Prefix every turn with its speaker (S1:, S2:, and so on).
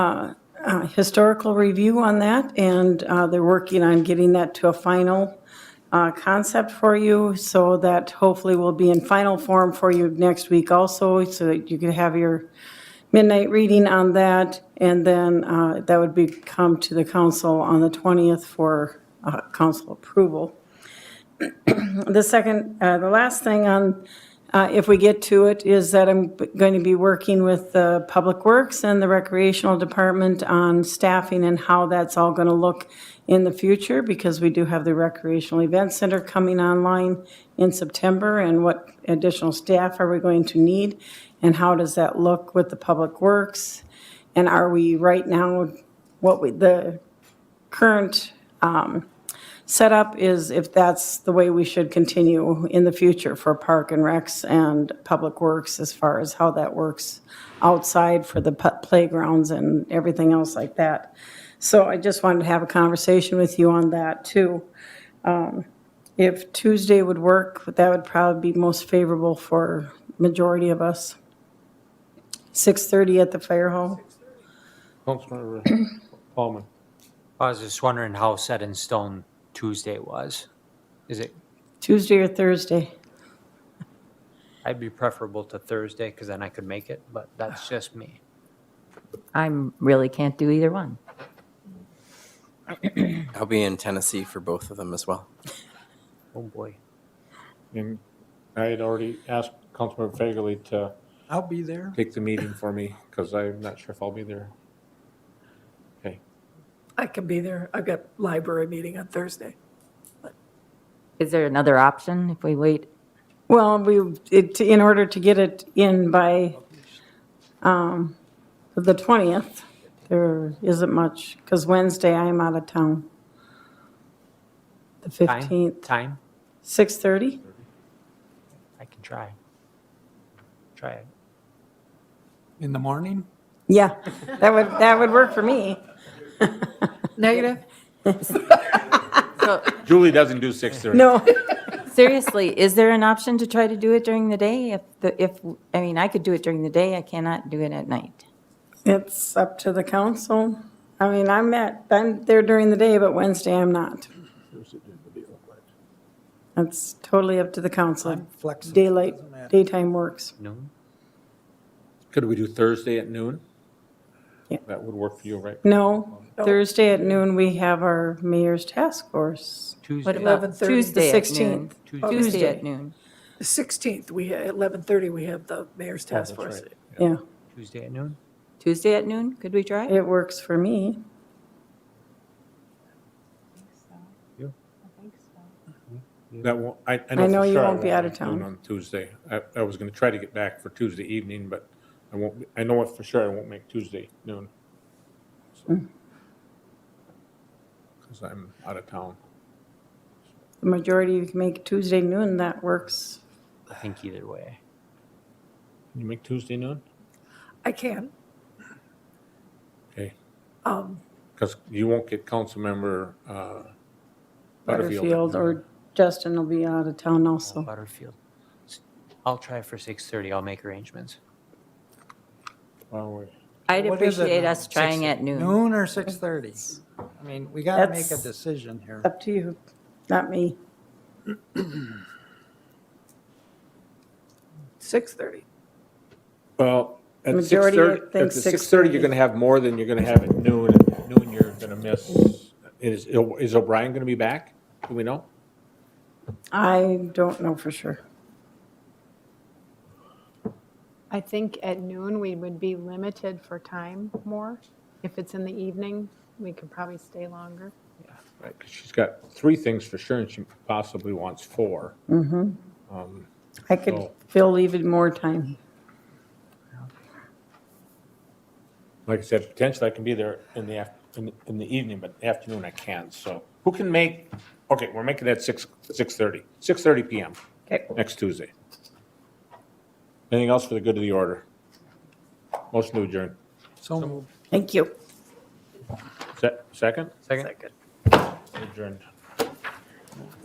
S1: uh, historical review on that, and uh, they're working on getting that to a final uh, concept for you, so that hopefully will be in final form for you next week also, so that you can have your midnight reading on that, and then uh, that would be come to the council on the 20th for uh, council approval. The second, uh, the last thing on, uh, if we get to it, is that I'm going to be working with the Public Works and the Recreational Department on staffing and how that's all going to look in the future, because we do have the Recreational Event Center coming online in September, and what additional staff are we going to need, and how does that look with the Public Works? And are we right now, what we, the current setup is if that's the way we should continue in the future for Park and Recs and Public Works as far as how that works outside for the pu- playgrounds and everything else like that. So I just wanted to have a conversation with you on that too. Um, If Tuesday would work, that would probably be most favorable for majority of us. 6:30 at the fire hall.
S2: Councilmember Paulman.
S3: I was just wondering how set in stone Tuesday was. Is it,
S1: Tuesday or Thursday?
S3: I'd be preferable to Thursday because then I could make it, but that's just me.
S4: I'm really can't do either one.
S5: I'll be in Tennessee for both of them as well.
S3: Oh, boy.
S2: And I had already asked Councilmember Fagerly to
S6: I'll be there.
S2: take the meeting for me because I'm not sure if I'll be there. Okay,
S7: I can be there. I've got library meeting on Thursday.
S4: Is there another option if we wait?
S1: Well, we, it, in order to get it in by, um, the twentieth, there isn't much, because Wednesday I'm out of town. The
S3: Time?
S1: fifteenth,
S3: Time?
S1: six thirty?
S3: I can try. Try it.
S6: In the morning?
S1: Yeah, that would, that would work for me.
S4: Negative. So
S2: Julie doesn't do six thirty.
S1: No,
S4: seriously, is there an option to try to do it during the day? If, the if, I mean, I could do it during the day, I cannot do it at night.
S1: it's up to the council. I mean, I'm at, I'm there during the day, but Wednesday I'm not. That's totally up to the council.
S6: I'm flexible.
S1: Daylight,
S6: Doesn't matter.
S1: daytime works.
S3: Noon?
S2: Could we do Thursday at noon?
S1: Yeah.
S2: That would work for you, right?
S1: No, Thursday at noon, we have our mayor's task force.
S4: What
S3: Tuesday? uh,
S4: about
S7: 11:30, the
S4: Tuesday at noon?
S1: 16th.
S4: Tuesday at noon.
S7: The 16th, we, at 11:30, we have the mayor's task
S2: Oh, that's
S7: force.
S2: right.
S1: Yeah,
S3: Tuesday at noon?
S4: Tuesday at noon, could we try?
S1: it works for me.
S2: That won't, I, I
S1: I
S2: know
S1: know
S2: for
S1: you
S2: sure I
S1: won't be out of
S2: noon
S1: town.
S2: On Tuesday. I, I was gonna try to get back for Tuesday evening, but I won't, be- I know for sure I won't make Tuesday noon.
S1: Mm.
S2: Because I'm out of town.
S1: The majority you can make Tuesday noon, that works.
S3: I think either way.
S2: Can you make Tuesday noon?
S7: I can.
S2: Okay.
S7: Um,
S2: Because you won't get Councilmember uh, Butterfield.
S1: Butterfield Mm-hmm. or Justin will be out of town
S4: Oh.
S1: also.
S3: Butterfield. I'll try for 6:30. I'll make arrangements.
S2: Oh, wait.
S4: I'd
S6: What is it
S4: appreciate
S6: now?
S4: us trying at noon.
S6: Noon or 6:30? I mean, we got to make a
S1: That's-
S6: decision here.
S1: Up to you, not me.
S7: 6:30.
S2: Well, at
S1: Majority would
S2: 6:30,
S1: think
S2: at the 6:30, you're
S1: 6:30.
S2: going to have more than you're going to have at noon. and at Noon, you're going to miss, is is O'Brien going to be back? Do we know?
S1: I don't know for sure.
S8: I think at noon, we would be limited for time more. If it's in the evening, we could probably stay longer.
S2: Right, 'cause she's got three things for sure, and she possibly wants four.
S1: I could
S2: So-
S1: fill even more time.
S2: Like I said, potentially I can be there in the, af- in the- in the evening, but afternoon I can't. So who can make, okay, we're making that 6, 6:30, 6:30 PM
S1: Okay.
S2: next Tuesday. Anything else for the good of the order? Motion to adjourn.
S6: So moved.
S1: Thank you.
S2: Se- Second?
S3: Second?
S2: Adjourned.